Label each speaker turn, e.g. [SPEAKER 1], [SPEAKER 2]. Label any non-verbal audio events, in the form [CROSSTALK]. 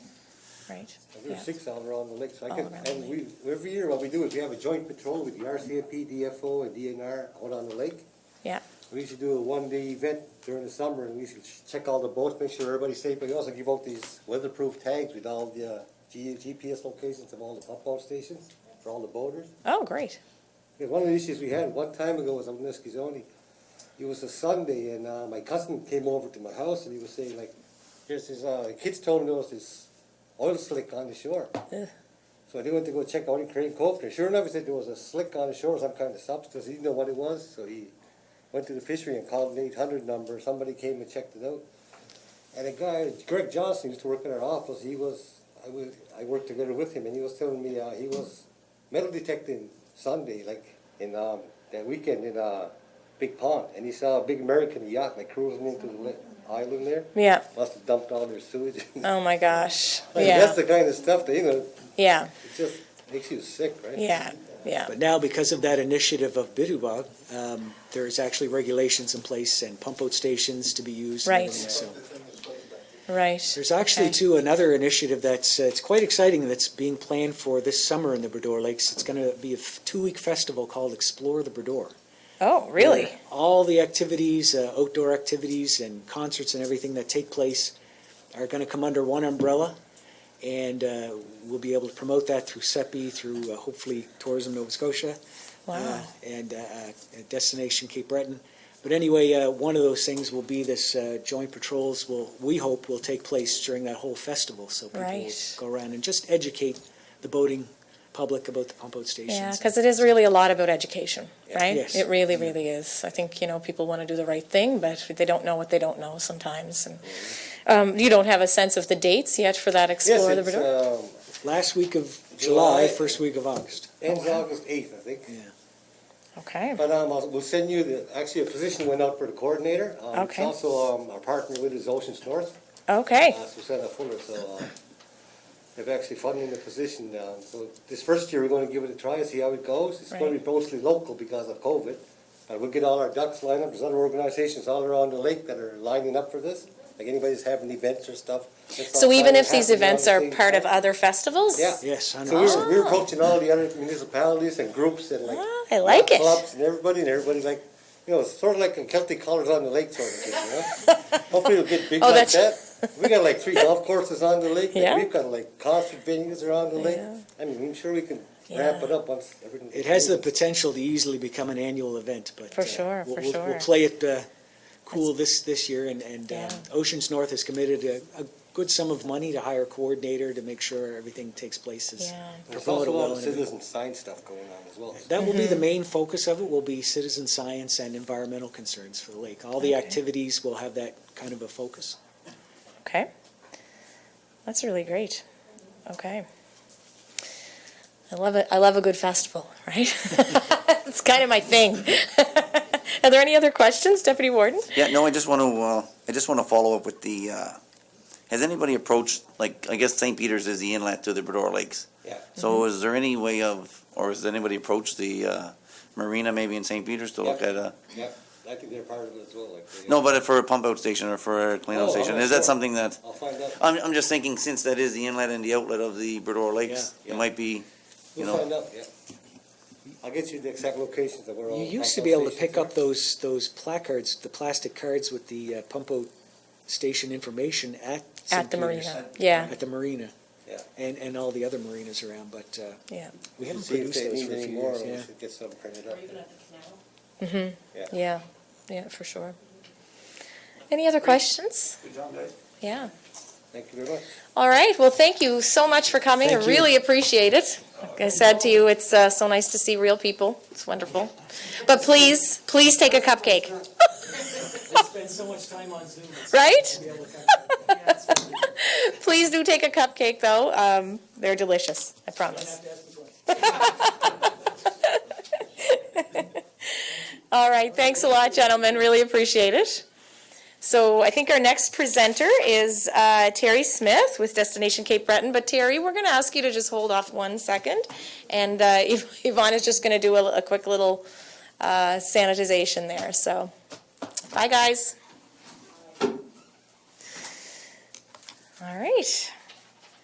[SPEAKER 1] right?
[SPEAKER 2] And There's
[SPEAKER 1] Yeah.
[SPEAKER 2] six all around the lake, so I
[SPEAKER 1] All
[SPEAKER 2] can,
[SPEAKER 1] around the
[SPEAKER 2] and we, every year, what we do is we have a joint patrol with the RCMP, DFO, and DNR out on the lake.
[SPEAKER 1] Yeah,
[SPEAKER 2] We used to do a one-day event during the summer, and we used to check all the boats, make sure everybody's safe, but we also give out these weatherproof tags with all the uh, G- GPS locations of all the pump out stations for all the boaters.
[SPEAKER 1] oh, great,
[SPEAKER 2] Yeah, one of the issues we had one time ago was on Niskizoni. It was a Sunday, and uh, my cousin came over to my house, and he was saying like, "There's this uh, kids told him there was this oil slick on the shore."
[SPEAKER 1] Ugh.
[SPEAKER 2] So they went to go check out in Crane Cove, and sure enough, he said there was a slick on the shore, some kind of substance. He didn't know what it was, so he went to the fishery and called an 800 number. Somebody came and checked it out. And a guy, Greg Johnson, used to work in our office. He was, I was, I worked together with him, and he was telling me uh, he was metal detecting Sunday, like in um, that weekend in uh, Big Pond, and he saw a big American yacht like cruising into the li- island there.
[SPEAKER 1] yeah,
[SPEAKER 2] Must have dumped all their sewage. [LAUGHS] like,
[SPEAKER 1] oh my gosh,
[SPEAKER 2] That's
[SPEAKER 1] yeah,
[SPEAKER 2] the kind of stuff that you know,
[SPEAKER 1] yeah,
[SPEAKER 2] it just makes you sick, right?
[SPEAKER 1] yeah, yeah,
[SPEAKER 3] But now, because of that initiative of Biduba, um, there's actually regulations in place and pump out stations to be used. and
[SPEAKER 1] Right.
[SPEAKER 3] everything, So
[SPEAKER 1] right.
[SPEAKER 3] there's actually
[SPEAKER 1] Okay.
[SPEAKER 3] too another initiative that's uh, it's quite exciting that's being planned for this summer in the Bredor Lakes. It's going to be a two week festival called Explore the Bredor.
[SPEAKER 1] Oh, really?
[SPEAKER 3] where All the activities, uh, outdoor activities and concerts and everything that take place are going to come under one umbrella. And uh, we'll be able to promote that through SEPI, through uh, hopefully Tourism Nova Scotia. uh,
[SPEAKER 1] Wow,
[SPEAKER 3] And uh, uh, Destination Cape Breton. But anyway, uh, one of those things will be this uh, joint patrols will, we hope, will take place during that whole festival. So people will
[SPEAKER 1] Right.
[SPEAKER 3] go around and just educate the boating public about the pump out stations.
[SPEAKER 1] yeah, because it is really a lot about education, right?
[SPEAKER 3] Yes.
[SPEAKER 1] It really, really is. I think, you know, people want to do the right thing, but they don't know what they don't know sometimes, and, um, you don't have a sense of the dates yet for that
[SPEAKER 2] Yes,
[SPEAKER 1] Explore the
[SPEAKER 2] it's,
[SPEAKER 1] Verdure?
[SPEAKER 2] um,
[SPEAKER 3] Last week of
[SPEAKER 2] July.
[SPEAKER 3] July, first week of August.
[SPEAKER 2] ends August 8th, I think.
[SPEAKER 1] Okay,
[SPEAKER 2] But um, I'll- we'll send you the, actually, a position went out for the coordinator. Um, it's
[SPEAKER 1] Okay.
[SPEAKER 2] Also, um, our partner with is Oceans North.
[SPEAKER 1] okay,
[SPEAKER 2] Uh, Susanna Fuller, so, uh, they've actually funding the position now. So this first year, we're gonna give it a try, see how it goes. It's gonna be
[SPEAKER 1] Right.
[SPEAKER 2] mostly local because of COVID. And we'll get all our ducks lined up. There's other organizations all around the lake that are lining up for this. Like anybody's having events or stuff. It's
[SPEAKER 1] so
[SPEAKER 2] not
[SPEAKER 1] even
[SPEAKER 2] finally
[SPEAKER 1] if these
[SPEAKER 2] happening
[SPEAKER 1] events
[SPEAKER 2] on
[SPEAKER 1] are
[SPEAKER 2] the same
[SPEAKER 1] part of
[SPEAKER 2] time.
[SPEAKER 1] other festivals?
[SPEAKER 2] Yeah.
[SPEAKER 3] Yes, I
[SPEAKER 2] So we
[SPEAKER 3] know.
[SPEAKER 2] were, we were approaching all the other municipalities and groups and like.
[SPEAKER 1] Oh. Ah, I like it.
[SPEAKER 2] Clubs and everybody, and everybody like, you know, it's sort of like a Celtic colors on the lake sort of
[SPEAKER 1] [LAUGHS]
[SPEAKER 2] thing, you know? Hopefully it'll get big
[SPEAKER 1] Oh,
[SPEAKER 2] like that.
[SPEAKER 1] that's-
[SPEAKER 2] We got like three golf courses on the lake,
[SPEAKER 1] Yeah.
[SPEAKER 2] and we've got like concert venues around the lake.
[SPEAKER 1] Yeah.
[SPEAKER 2] I mean, I'm sure we can ramp
[SPEAKER 1] Yeah.
[SPEAKER 2] it up once everything.
[SPEAKER 3] It has the potential to easily become an annual event, but.
[SPEAKER 1] For
[SPEAKER 3] uh,
[SPEAKER 1] sure,
[SPEAKER 3] we'll-
[SPEAKER 1] for
[SPEAKER 3] we'll-
[SPEAKER 1] sure.
[SPEAKER 3] We'll play it uh, cool this, this year, and, and um,
[SPEAKER 1] Yeah.
[SPEAKER 3] Oceans North has committed a, a good sum of money to hire a coordinator to make sure everything takes place as
[SPEAKER 1] Yeah.
[SPEAKER 2] There's
[SPEAKER 3] promoted
[SPEAKER 2] also a lot
[SPEAKER 3] well.
[SPEAKER 2] of
[SPEAKER 3] and everything.
[SPEAKER 2] citizen science stuff going on as well.
[SPEAKER 3] That will be the
[SPEAKER 1] Mm-hmm.
[SPEAKER 3] main focus of it, will be citizen science and environmental concerns for the lake. All the
[SPEAKER 1] Okay.
[SPEAKER 3] activities will have that kind of a focus.
[SPEAKER 1] Okay. That's really great. Okay. I love it. I love a good festival, right? [LAUGHS] it's kind of my thing. [LAUGHS] Are there any other questions, Deputy Warden?
[SPEAKER 4] Yeah, no, I just want to, uh, I just want to follow up with the, uh, has anybody approached, like, I guess St. Peter's is the inlet to the Bredor Lakes.
[SPEAKER 2] Yeah.
[SPEAKER 4] So is there any way of, or has anybody approached the, uh, marina maybe in St. Peter's to look
[SPEAKER 2] Yeah.
[SPEAKER 4] at a,
[SPEAKER 2] Yeah, I think they're part of it as well, like. they-
[SPEAKER 4] no, but for a pump out station or for a clean
[SPEAKER 2] Oh,
[SPEAKER 4] out station?
[SPEAKER 2] alright,
[SPEAKER 4] Is
[SPEAKER 2] sure.
[SPEAKER 4] that something that,
[SPEAKER 2] I'll find out.
[SPEAKER 4] I'm, I'm just thinking since that is the inlet and the outlet of the Bredor Lakes,
[SPEAKER 2] Yeah.
[SPEAKER 4] it might be, you
[SPEAKER 2] We'll
[SPEAKER 4] know,
[SPEAKER 2] find out, yeah. I'll get you the exact locations of where all.
[SPEAKER 3] You
[SPEAKER 2] the
[SPEAKER 3] used to
[SPEAKER 2] pump
[SPEAKER 3] be able to
[SPEAKER 2] stations
[SPEAKER 3] pick
[SPEAKER 2] are.
[SPEAKER 3] up those, those placards, the plastic cards with the uh, pump out station information at St.
[SPEAKER 1] At the
[SPEAKER 3] Peter's.
[SPEAKER 1] marina. Yeah.
[SPEAKER 3] At the marina.
[SPEAKER 2] Yeah.
[SPEAKER 3] And, and all the other marinas around, but uh,
[SPEAKER 1] Yeah.
[SPEAKER 3] we haven't
[SPEAKER 2] See if
[SPEAKER 3] produced
[SPEAKER 2] they
[SPEAKER 3] those
[SPEAKER 2] need
[SPEAKER 3] for a
[SPEAKER 2] any
[SPEAKER 3] few
[SPEAKER 2] more,
[SPEAKER 3] years,
[SPEAKER 2] we
[SPEAKER 3] yeah.
[SPEAKER 2] should get some printed up.
[SPEAKER 1] Yeah. Yeah, for sure. Any other questions? Yeah.
[SPEAKER 2] Thank you very much.
[SPEAKER 1] All right. Well, thank you so much for coming. I
[SPEAKER 3] Thank you.
[SPEAKER 1] really appreciate it. Like I said to you, it's uh, so nice to see real people. It's wonderful. But please, please take a cupcake.
[SPEAKER 3] I spend so much time on
[SPEAKER 1] [LAUGHS]
[SPEAKER 3] Zoom.
[SPEAKER 1] Right? [LAUGHS] Please do take a cupcake, though. Um, they're delicious, I promise. [LAUGHS] All right, thanks a lot, gentlemen. Really appreciate it. So I think our next presenter is uh, Terry Smith with Destination Cape Breton. But Terry, we're going to ask you to just hold off one second. And uh, [LAUGHS] Yv- Yvonne is just going to do a, a quick little uh, sanitization there. So, bye, guys. All right.